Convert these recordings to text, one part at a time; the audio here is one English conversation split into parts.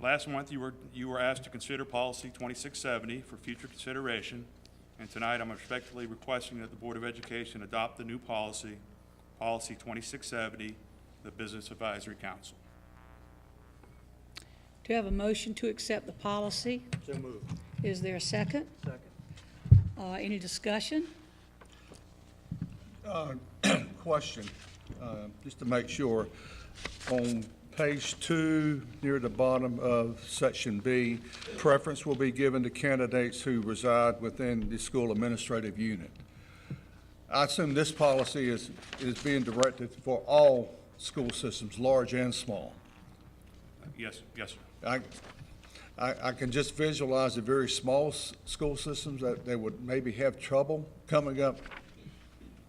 Last month, you were, you were asked to consider policy 2670 for future consideration, and tonight I'm respectfully requesting that the Board of Education adopt the new policy, policy 2670, the Business Advisory Council. Do you have a motion to accept the policy? So moved. Is there a second? Second. Uh, Any discussion? Question, uh, just to make sure, on page two, near the bottom of section B, preference will be given to candidates who reside within the school administrative unit. I assume this policy is, is being directed for all school systems, large and small. Yes, yes, sir. I, I, I can just visualize the very small s- school systems that they would maybe have trouble coming up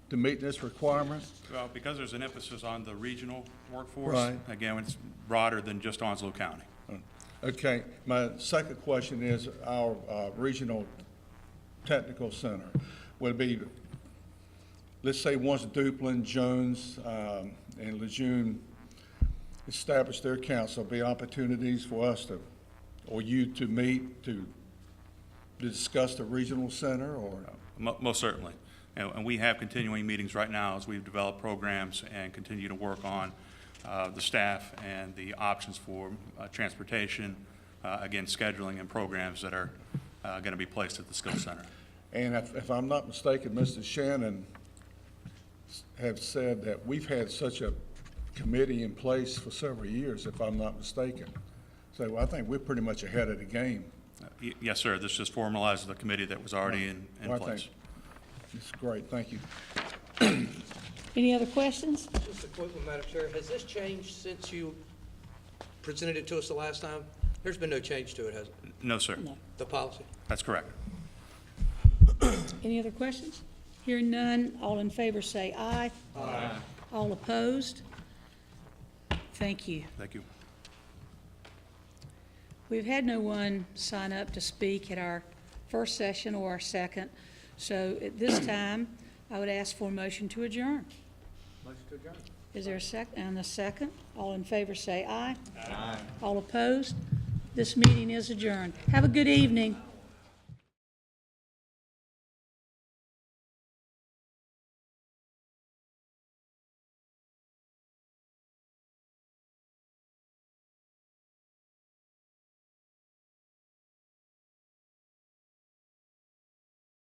to meet this requirement. Well, because there's an emphasis on the regional workforce, Right. again, it's broader than just Onslow County. Okay, my second question is our uh, regional technical center would be, let's say once Duplin, Jones, um, and Lejeune establish their council, be opportunities for us to, or you to meet to discuss the regional center or? Mo- Most certainly. And and we have continuing meetings right now as we've developed programs and continue to work on uh, the staff and the options for uh, transportation, uh, again, scheduling and programs that are going to be placed at the skill center. And if, if I'm not mistaken, Mr. Shannon s- have said that we've had such a committee in place for several years, if I'm not mistaken. So I think we're pretty much ahead of the game. Uh, y- Yes, sir, this just formalizes the committee that was already in in Well, I place. think It's great, thank you. Any other questions? Just a quick one, Madam Chair. Has this changed since you presented it to us the last time? There's been no change to it, has it? No, sir, No. The policy? that's correct. Any other questions? Hearing none, all in favor say aye. Aye. All opposed? Thank you. Thank you. We've had no one sign up to speak at our first session or our second, so at this time, I would ask for a motion to adjourn. Motion to adjourn. Is there a sec, and a second? All in favor say aye. Aye. All opposed? This meeting is adjourned. Have a good evening.